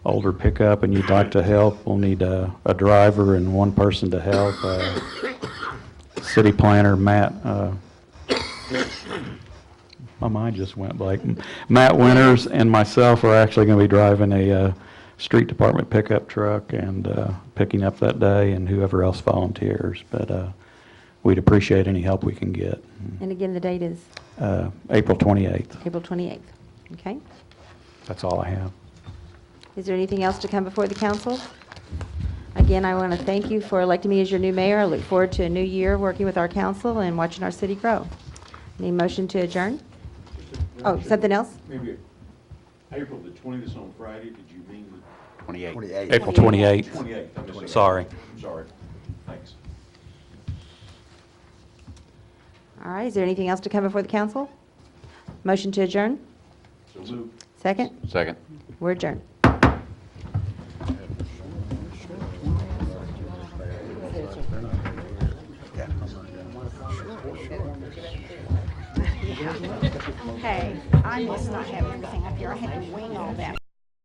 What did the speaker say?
older pickup and you'd like to help, we'll need a, a driver and one person to help. uh, City planner, Matt, uh, my mind just went blank. Matt Winters and myself are actually going to be driving a, uh, street department pickup truck and, uh, picking up that day and whoever else volunteers. But, uh, we'd appreciate any help we can get. And again, the date is Uh, April 28th, April 28th. Okay? that's all I have. Is there anything else to come before the council? Again, I want to thank you for electing me as your new mayor. I look forward to a new year working with our council and watching our city grow. Need motion to adjourn? Oh, something else? Maybe April the twentieth is on Friday, did you mean Twenty-eight. Twenty-eight. April 28th. the 28th. twenty-eighth? I missed it. Sorry. Sorry, thanks. All right, is there anything else to come before the council? Motion to adjourn? So moved. Second? Second. We're adjourned. Hey, I must not have everything up here. I had to wing all that.